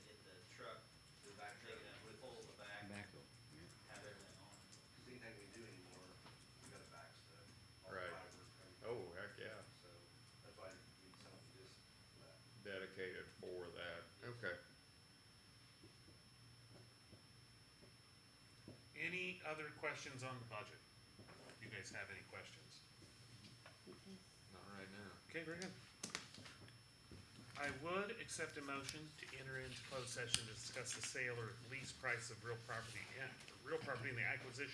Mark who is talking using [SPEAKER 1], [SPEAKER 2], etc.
[SPEAKER 1] Oh, dedicated for that, okay.
[SPEAKER 2] Any other questions on the budget? You guys have any questions?
[SPEAKER 1] Not right now.
[SPEAKER 2] Okay, very good. I would accept a motion to enter into closed session to discuss the sale or lease price of real property, and real property and the acquisition